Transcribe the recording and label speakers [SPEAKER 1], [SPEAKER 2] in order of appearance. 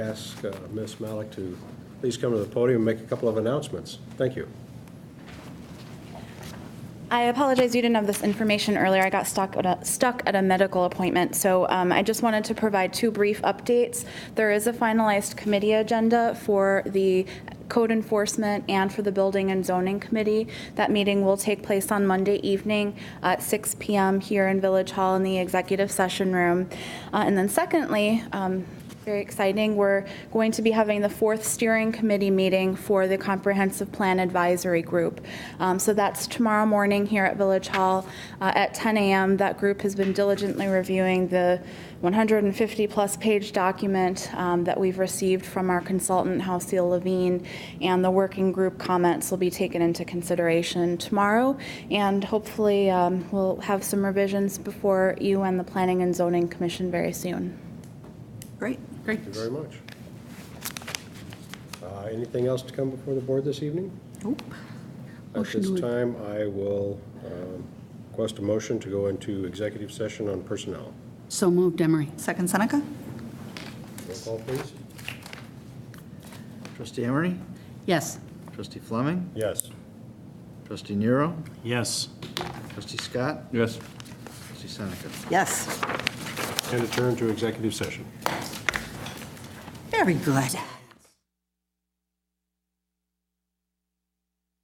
[SPEAKER 1] ask uh, Ms. Malik to please come to the podium and make a couple of announcements. Thank you.
[SPEAKER 2] I apologize, you didn't have this information earlier. I got stuck at a, stuck at a medical appointment, so um, I just wanted to provide two brief updates. There is a finalized committee agenda for the code enforcement and for the building and zoning committee. That meeting will take place on Monday evening at 6 p.m. here in Village Hall in the executive session room. Uh, and then, secondly, um, very exciting. We're going to be having the fourth steering committee meeting for the Comprehensive Plan Advisory Group. Um, So that's tomorrow morning here at Village Hall uh, at 10 a.m. That group has been diligently reviewing the 150-plus page document um, that we've received from our consultant, Halcyon Levine, and the working group comments will be taken into consideration tomorrow. And hopefully, um, we'll have some revisions before you and the Planning and Zoning Commission very soon.
[SPEAKER 3] Great.
[SPEAKER 4] Great.
[SPEAKER 1] Thank you very much. Uh, Anything else to come before the board this evening?
[SPEAKER 3] Nope.
[SPEAKER 1] At
[SPEAKER 4] Motion
[SPEAKER 1] this
[SPEAKER 4] to-
[SPEAKER 1] time, I will um, request a motion to go into executive session on personnel.
[SPEAKER 4] So moved, Emery.
[SPEAKER 3] Second Seneca?
[SPEAKER 1] Roll call, please.
[SPEAKER 5] Trustee Emery?
[SPEAKER 4] Yes.
[SPEAKER 5] Trustee Fleming?
[SPEAKER 1] Yes.
[SPEAKER 5] Trustee Nero?
[SPEAKER 6] Yes.
[SPEAKER 5] Trustee Scott?
[SPEAKER 6] Yes.
[SPEAKER 5] Trustee Seneca?
[SPEAKER 3] Yes.
[SPEAKER 1] And adjourn to executive session.
[SPEAKER 3] Very good.